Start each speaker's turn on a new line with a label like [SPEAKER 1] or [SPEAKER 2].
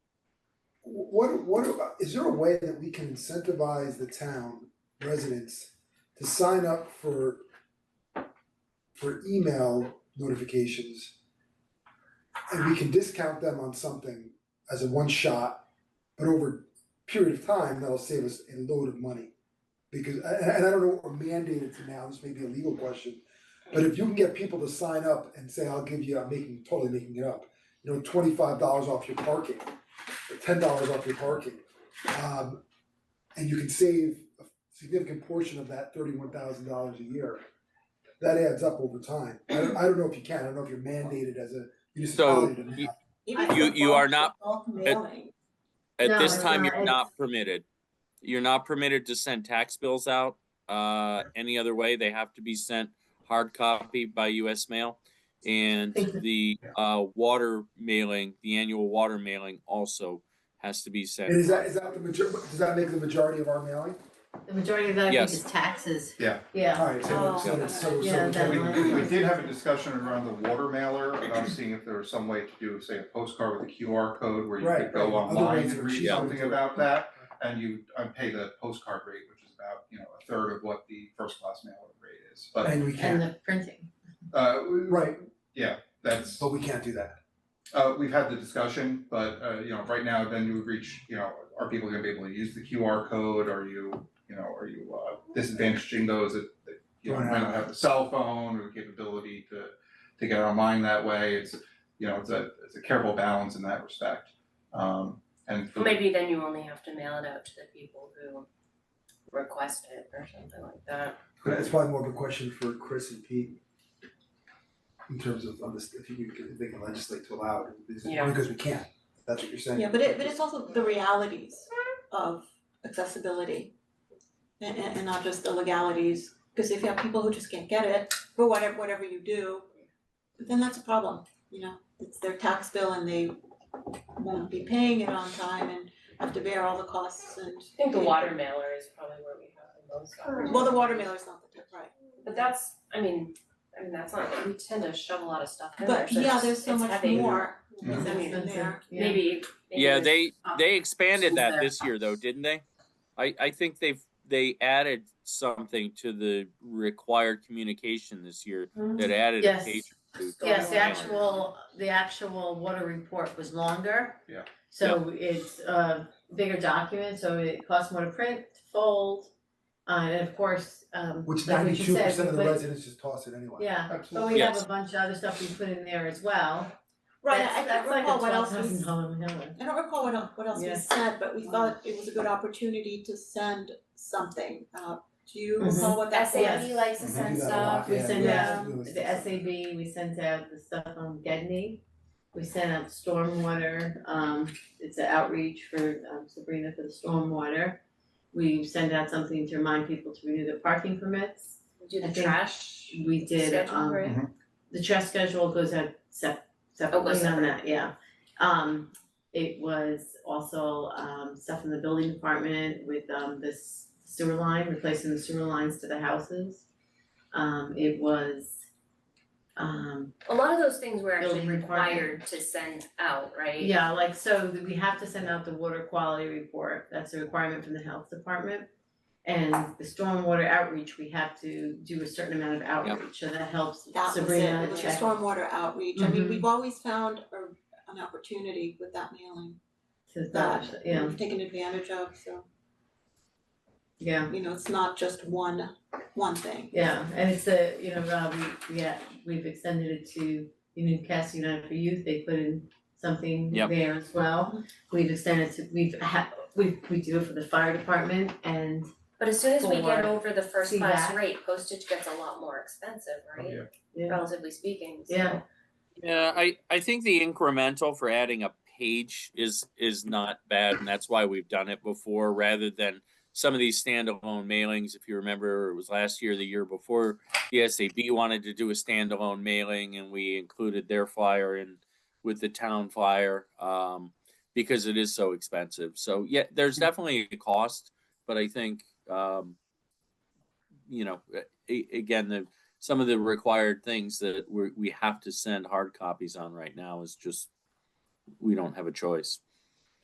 [SPEAKER 1] what, what, about- is there a way that we can incentivize the town residents to sign up for for email notifications? And we can discount them on something as a one shot, but over a period of time, that'll save us a load of money. Because, and, and I don't know what we're mandated to now, this may be a legal question, but if you can get people to sign up and say, I'll give you, I'm making, totally making it up, you know, twenty-five dollars off your parking, or ten dollars off your parking. Um, and you can save a significant portion of that thirty-one thousand dollars a year. That adds up over time. I don't, I don't know if you can, I don't know if you're mandated as a municipality to
[SPEAKER 2] So
[SPEAKER 1] now.
[SPEAKER 2] you-
[SPEAKER 3] Even
[SPEAKER 2] You-
[SPEAKER 3] for
[SPEAKER 2] you
[SPEAKER 3] bulk-
[SPEAKER 2] are not-
[SPEAKER 3] for Bulk mailing.
[SPEAKER 2] At
[SPEAKER 4] No,
[SPEAKER 2] this
[SPEAKER 4] it's
[SPEAKER 2] time,
[SPEAKER 4] not.
[SPEAKER 2] you're not permitted. You're not permitted to send tax bills out, uh, any other way. They have to be sent hard copy by US mail. And
[SPEAKER 4] Thank you.
[SPEAKER 2] the, uh, water mailing, the annual water mailing also has to be
[SPEAKER 1] And is
[SPEAKER 2] sent.
[SPEAKER 1] that, is that the major, does that make the majority of our mailing?
[SPEAKER 4] The majority of that, I think,
[SPEAKER 2] Yes.
[SPEAKER 4] is taxes.
[SPEAKER 5] Yeah.
[SPEAKER 4] Yeah, Oh,
[SPEAKER 1] Alright, so so that's- so so.
[SPEAKER 4] Yeah, that
[SPEAKER 5] We, we- we
[SPEAKER 4] one.
[SPEAKER 5] did have a discussion around the water mailer, about seeing if there was some way to do, say, a postcard with a QR code where you
[SPEAKER 1] Right,
[SPEAKER 5] could go
[SPEAKER 1] right. Other
[SPEAKER 5] online
[SPEAKER 1] ways
[SPEAKER 5] and
[SPEAKER 1] of
[SPEAKER 5] read
[SPEAKER 1] achieving
[SPEAKER 5] something
[SPEAKER 1] it.
[SPEAKER 5] about that. And you uh, pay the postcard rate, which is about, you know, a third of what the first class mailer rate is, but
[SPEAKER 1] And we
[SPEAKER 4] and
[SPEAKER 1] can't,
[SPEAKER 4] the printing.
[SPEAKER 5] uh, we-
[SPEAKER 1] right,
[SPEAKER 5] that's,
[SPEAKER 1] but we can't do that.
[SPEAKER 5] uh, we've had the discussion, but uh, you know, right now, then you would reach, you know, are people gonna be able to use the QR code, are you, you know, are you uh disadvantaging those that that you know,
[SPEAKER 1] Don't
[SPEAKER 5] might
[SPEAKER 1] have
[SPEAKER 5] not
[SPEAKER 1] it.
[SPEAKER 5] have the cell phone or the capability to to get online that way, it's, you know, it's a, it's a careful balance in that respect. Um and for-
[SPEAKER 6] Maybe then you only have to mail it out to the people who request it or something like that.
[SPEAKER 1] But it's probably more of a question for Chris and Pete. In terms of, on this, if you can, if they can legislate to allow it, because-
[SPEAKER 6] Yeah.
[SPEAKER 1] because we can't, that's what you're saying.
[SPEAKER 3] Yeah, but it, but it's also the realities of accessibility. And, and, and not just the legalities, because if you have people who just can't get it, for whatever, whatever you do, then that's a problem, you know? It's their tax bill and they won't be paying it on time and have to bear all the costs and.
[SPEAKER 6] I think the water mailer is probably where we have the most opportunity.
[SPEAKER 3] Well, the water mailer's not the, right.
[SPEAKER 6] But that's, I mean, I mean, that's not, we tend to shove a lot of stuff in there,
[SPEAKER 3] But
[SPEAKER 6] so
[SPEAKER 3] yeah,
[SPEAKER 6] it's-
[SPEAKER 3] there's so
[SPEAKER 6] it's
[SPEAKER 3] much
[SPEAKER 6] heavy.
[SPEAKER 3] more
[SPEAKER 5] Yeah.
[SPEAKER 3] that's in
[SPEAKER 4] Expensive,
[SPEAKER 3] there.
[SPEAKER 4] yeah.
[SPEAKER 6] Maybe, maybe
[SPEAKER 2] Yeah,
[SPEAKER 6] it's-
[SPEAKER 2] they, they expanded that
[SPEAKER 6] there.
[SPEAKER 2] this year though, didn't they? I, I think they've, they added something to the required communication this year
[SPEAKER 6] Hmm?
[SPEAKER 2] that added a
[SPEAKER 4] Yes.
[SPEAKER 2] page. or two.
[SPEAKER 4] Yes, the
[SPEAKER 6] Yeah.
[SPEAKER 4] actual, the actual water report was longer.
[SPEAKER 5] Yeah.
[SPEAKER 4] So it's a bigger document, so it costs more to print, fold, uh, and of course, um,
[SPEAKER 1] Which
[SPEAKER 4] like what
[SPEAKER 1] ninety-two
[SPEAKER 4] you said,
[SPEAKER 1] percent of
[SPEAKER 4] we
[SPEAKER 1] the
[SPEAKER 4] put-
[SPEAKER 1] residents just toss it anyway.
[SPEAKER 4] Oh, Yeah, but
[SPEAKER 5] Absolutely.
[SPEAKER 4] we have
[SPEAKER 2] Yes.
[SPEAKER 4] a bunch of other stuff we put in there as well.
[SPEAKER 3] Right,
[SPEAKER 4] That's-
[SPEAKER 3] I can't recall what else was.
[SPEAKER 4] That's like a twelve thousand dollar
[SPEAKER 3] I don't recall what el- what else we
[SPEAKER 4] Yeah.
[SPEAKER 3] said, but we
[SPEAKER 4] Wow.
[SPEAKER 3] thought it was a good opportunity to send something, uh, do you
[SPEAKER 4] Mhm.
[SPEAKER 3] recall what that was?
[SPEAKER 6] SAE likes to
[SPEAKER 1] We do
[SPEAKER 6] send
[SPEAKER 1] that a
[SPEAKER 6] stuff.
[SPEAKER 1] lot,
[SPEAKER 4] We
[SPEAKER 1] yeah,
[SPEAKER 4] send
[SPEAKER 1] yeah.
[SPEAKER 4] out
[SPEAKER 1] Yeah.
[SPEAKER 4] the SAB, we sent out the stuff on Gedney. We sent out stormwater, um, it's an outreach for um, Sabrina for the stormwater. We sent out something to remind people to renew their parking permits.
[SPEAKER 6] We Do
[SPEAKER 4] I
[SPEAKER 6] the
[SPEAKER 4] think
[SPEAKER 6] trash.
[SPEAKER 4] We did,
[SPEAKER 6] Schedule,
[SPEAKER 4] um,
[SPEAKER 6] right?
[SPEAKER 4] the trash schedule goes out sep- separately on
[SPEAKER 6] Oh, separate.
[SPEAKER 4] that, yeah. Um, it was also, um, stuff in the building department with, um, this sewer line, replacing the sewer lines to the houses. Um, it was, um,
[SPEAKER 6] A lot of those things we're actually
[SPEAKER 4] Building requirement.
[SPEAKER 6] required to send out, right?
[SPEAKER 4] yeah, like, so that we have to send out the water quality report, that's a requirement from the health department. And the stormwater outreach, we have to do a certain amount of outreach, so that helps
[SPEAKER 3] That was it,
[SPEAKER 4] Sabrina
[SPEAKER 3] it was a
[SPEAKER 4] check.
[SPEAKER 3] stormwater outreach, I mean,
[SPEAKER 4] Mhm.
[SPEAKER 3] we've always found a an opportunity with that mailing,
[SPEAKER 4] to that, yeah,
[SPEAKER 3] we've taken advantage of, so,
[SPEAKER 4] yeah.
[SPEAKER 3] you know, it's not just one, one thing.
[SPEAKER 4] Yeah, and it's a, you know, Rob, we, yeah, we've extended it to Newcastle United for Youth, they put in something
[SPEAKER 2] Yep.
[SPEAKER 4] there as well. We've extended to, we've ha- we we do it for the fire department and
[SPEAKER 6] But as soon as we
[SPEAKER 4] Four.
[SPEAKER 6] get over the first
[SPEAKER 4] See
[SPEAKER 6] class
[SPEAKER 4] that?
[SPEAKER 6] rate, postage gets a lot more expensive, right?
[SPEAKER 5] Yeah.
[SPEAKER 4] Yeah.
[SPEAKER 6] Relatively speaking, so.
[SPEAKER 4] Yeah.
[SPEAKER 2] Yeah, I, I think the incremental for adding a page is is not bad, and that's why we've done it before, rather than some of these standalone mailings. If you remember, it was last year, the year before, the SAB wanted to do a standalone mailing, and we included their flyer in with the town flyer um, because it is so expensive. So yeah, there's definitely a cost, but I think um, you know, a- again, the some of the required things that we we have to send hard copies on right now is just we don't have a choice.